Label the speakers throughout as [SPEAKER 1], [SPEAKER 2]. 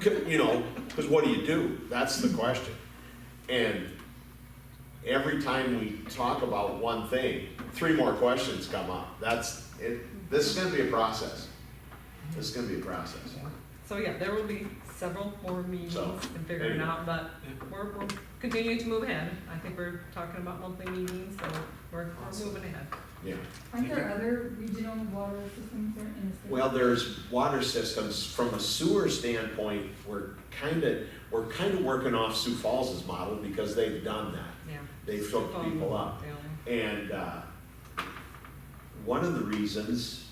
[SPEAKER 1] c- you know, because what do you do? That's the question. And every time we talk about one thing, three more questions come up. That's, it, this is gonna be a process. This is gonna be a process.
[SPEAKER 2] So yeah, there will be several more meetings
[SPEAKER 1] So,
[SPEAKER 2] and
[SPEAKER 1] there
[SPEAKER 2] figuring
[SPEAKER 1] you
[SPEAKER 2] it
[SPEAKER 1] go.
[SPEAKER 2] out, but we're, we're continuing to move ahead. I think we're talking about monthly meetings, so we're, we're moving ahead.
[SPEAKER 1] Yeah.
[SPEAKER 3] Aren't there other regional water systems there in the state?
[SPEAKER 1] Well, there's water systems, from a sewer standpoint, we're kinda, we're kinda working off Sioux Falls's model because they've done that.
[SPEAKER 2] Yeah.
[SPEAKER 1] They've hooked people up.
[SPEAKER 2] Yeah.
[SPEAKER 1] And uh, one of the reasons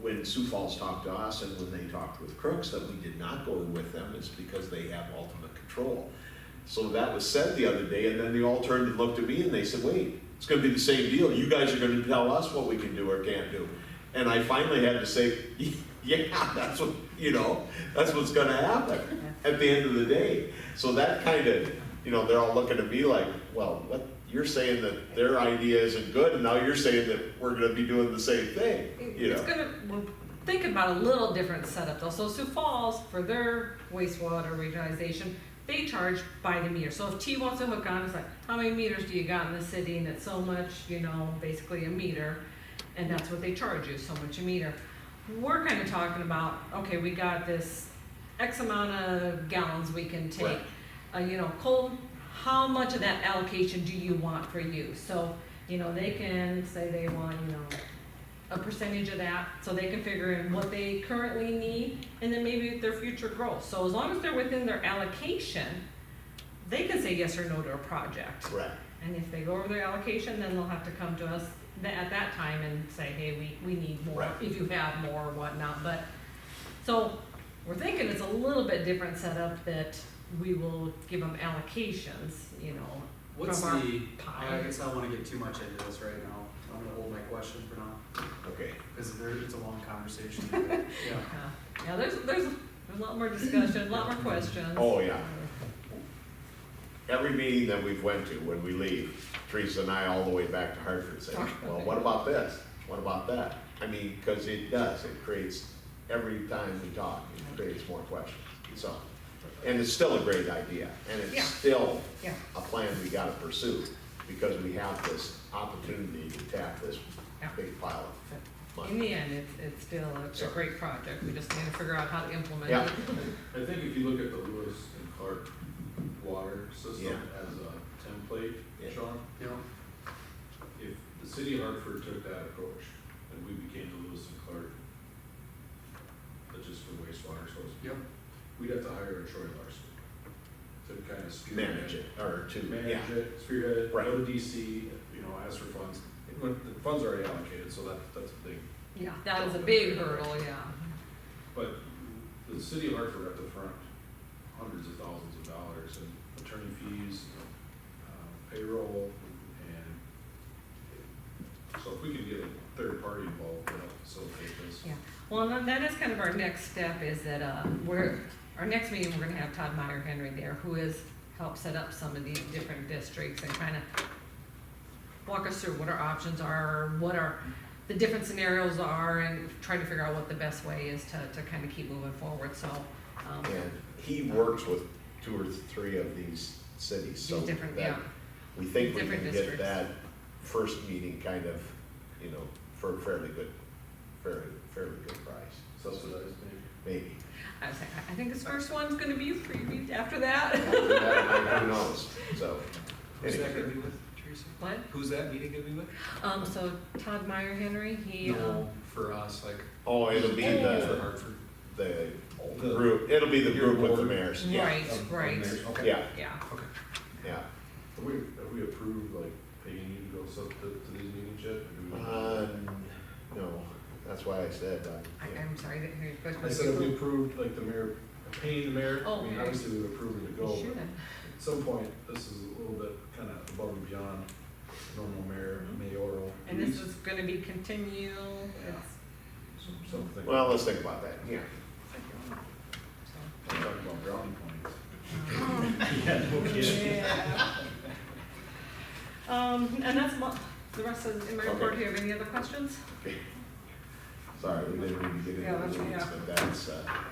[SPEAKER 1] when Sioux Falls talked to us and when they talked with Crooks that we did not go with them is because they have ultimate control. So that was said the other day, and then they all turned and looked at me and they said, wait, it's gonna be the same deal. You guys are gonna tell us what we can do or can't do. And I finally had to say, yeah, that's what, you know, that's what's gonna happen at the end of the day. So that kind of, you know, they're all looking at me like, well, what, you're saying that their idea isn't good, and now you're saying that we're gonna be doing the same thing,
[SPEAKER 2] It-
[SPEAKER 1] you
[SPEAKER 2] It's
[SPEAKER 1] know?
[SPEAKER 2] gonna, we're thinking about a little different setup though. So Sioux Falls, for their wastewater regionalization, they charge by the meter. So if T wants to hook on, it's like, how many meters do you got in the city? And it's so much, you know, basically a meter. And that's what they charge you, so much a meter. We're kind of talking about, okay, we got this X amount of gallons we can take.
[SPEAKER 1] Right.
[SPEAKER 2] Uh, you know, coal, how much of that allocation do you want for you? So, you know, they can say they want, you know, a percentage of that, so they can figure in what they currently need, and then maybe their future growth. So as long as they're within their allocation, they can say yes or no to a project.
[SPEAKER 1] Right,
[SPEAKER 2] And if they go over their allocation, then they'll have to come to us tha- at that time and say, hey, we, we need more,
[SPEAKER 1] Right.
[SPEAKER 2] if you have more or whatnot, but, so, we're thinking it's a little bit different setup that we will give them allocations, you know,
[SPEAKER 4] What's
[SPEAKER 2] from our
[SPEAKER 4] the, I
[SPEAKER 2] pie.
[SPEAKER 4] guess I don't wanna get too much into this right now, I'm gonna hold my question for now,
[SPEAKER 1] okay.
[SPEAKER 4] cause there, it's a long conversation. Yeah,
[SPEAKER 2] Yeah, Yeah, there's, there's, there's a lot more discussion, a lot more questions. Uh,
[SPEAKER 1] Oh, yeah. Every meeting that we've went to, when we leave, Teresa and I all the way back to Hartford say,
[SPEAKER 2] Talk about
[SPEAKER 1] well,
[SPEAKER 2] it."
[SPEAKER 1] what about this? What about that? I mean, because it does, it creates, every time we talk, it creates more questions, so. And it's still a great idea, and
[SPEAKER 2] Yeah.
[SPEAKER 1] it's still
[SPEAKER 2] Yeah.
[SPEAKER 1] a plan we gotta pursue, because we have this opportunity to tap this
[SPEAKER 2] Yeah.
[SPEAKER 1] big pile of
[SPEAKER 2] In
[SPEAKER 1] money.
[SPEAKER 2] the end, it's, it's still a- it's a
[SPEAKER 1] Yeah.
[SPEAKER 2] great project, we just need to figure out how to implement
[SPEAKER 1] Yeah.
[SPEAKER 2] it.
[SPEAKER 5] I think if you look at the Lewis and Clark water system
[SPEAKER 1] Yeah.
[SPEAKER 5] as a template,
[SPEAKER 1] Yeah.
[SPEAKER 5] Sean,
[SPEAKER 4] you know,
[SPEAKER 5] if the city of Hartford took that approach, and we became the Lewis and Clark, but just for wastewater source,
[SPEAKER 4] yep,
[SPEAKER 5] we'd have to hire a Troy Larson to kind of spearhead.
[SPEAKER 1] Manage it, or
[SPEAKER 5] To
[SPEAKER 1] to, yeah,
[SPEAKER 5] manage it, spearhead it,
[SPEAKER 1] Right.
[SPEAKER 5] go to DC, you know, ask for funds, It went- the funds are already allocated, so that, that's a big
[SPEAKER 2] Yeah, that was a big hurdle, yeah.
[SPEAKER 5] But the city of Hartford at the front, hundreds of thousands of dollars in attorney fees, uh, payroll, and so if we can get a third party involved, that'll facilitate this.
[SPEAKER 2] Yeah, well, and that is kind of our next step, is that, uh, we're, our next meeting, we're gonna have Todd Meyer Henry there, who has helped set up some of these different districts and kind of walk us through what our options are, what our, the different scenarios are, and try to figure out what the best way is to, to kind of keep moving forward, so, um,
[SPEAKER 1] and he works with two or three of these cities, so.
[SPEAKER 2] these different,
[SPEAKER 1] that-
[SPEAKER 2] yeah.
[SPEAKER 1] We think we
[SPEAKER 2] Different
[SPEAKER 1] can get
[SPEAKER 2] districts.
[SPEAKER 1] that first meeting kind of, you know, for a fairly good, fairly, fairly good price,
[SPEAKER 5] Subsidized maybe.
[SPEAKER 1] maybe.
[SPEAKER 2] I was like, I- I think this first one's gonna be freebie after that.
[SPEAKER 1] After that, Who knows, so.
[SPEAKER 4] who's that
[SPEAKER 1] anyway.
[SPEAKER 4] gonna be with, Teresa?
[SPEAKER 2] What?
[SPEAKER 4] Who's that meeting gonna be with?
[SPEAKER 2] Um, so Todd Meyer Henry, he, um,
[SPEAKER 4] No, for us, like,
[SPEAKER 1] Oh, it'll be
[SPEAKER 4] for
[SPEAKER 1] the,
[SPEAKER 4] Hartford.
[SPEAKER 1] the
[SPEAKER 5] The-
[SPEAKER 1] group, it'll be the
[SPEAKER 5] Your
[SPEAKER 1] group with the
[SPEAKER 5] board.
[SPEAKER 1] mayors, yeah, Oh,
[SPEAKER 2] right,
[SPEAKER 5] Of- of
[SPEAKER 2] right,
[SPEAKER 5] mayors, Okay.
[SPEAKER 1] yeah,
[SPEAKER 2] yeah.
[SPEAKER 4] Okay,
[SPEAKER 1] yeah.
[SPEAKER 5] Have we, have we approved like paying you to go sub to, to these meetings yet? Or do we-
[SPEAKER 1] Uh, no, that's why I said, uh,
[SPEAKER 2] I,
[SPEAKER 1] yeah.
[SPEAKER 2] I'm sorry, I didn't hear your question.
[SPEAKER 5] I said, have we approved like the mayor, paying the mayor?
[SPEAKER 2] Oh,
[SPEAKER 5] I mean,
[SPEAKER 2] mayor.
[SPEAKER 5] obviously we've approved him to go,
[SPEAKER 2] Sure.
[SPEAKER 5] but at some point, this is a little bit kind of above and beyond normal mayor, mayoral.
[SPEAKER 2] And this
[SPEAKER 5] duties,
[SPEAKER 2] is gonna be continual, it's,
[SPEAKER 5] some- Something.
[SPEAKER 1] Well, let's think about that, yeah.
[SPEAKER 2] so.
[SPEAKER 5] Talk about brownie points.
[SPEAKER 2] Yeah. Um, and that's mo- the rest of, in my report,
[SPEAKER 1] Okay.
[SPEAKER 2] do you have any other questions?
[SPEAKER 1] Sorry, we didn't really get
[SPEAKER 2] Yeah,
[SPEAKER 1] into
[SPEAKER 2] that's-
[SPEAKER 1] the weeds,
[SPEAKER 2] yeah.
[SPEAKER 1] but that's, uh,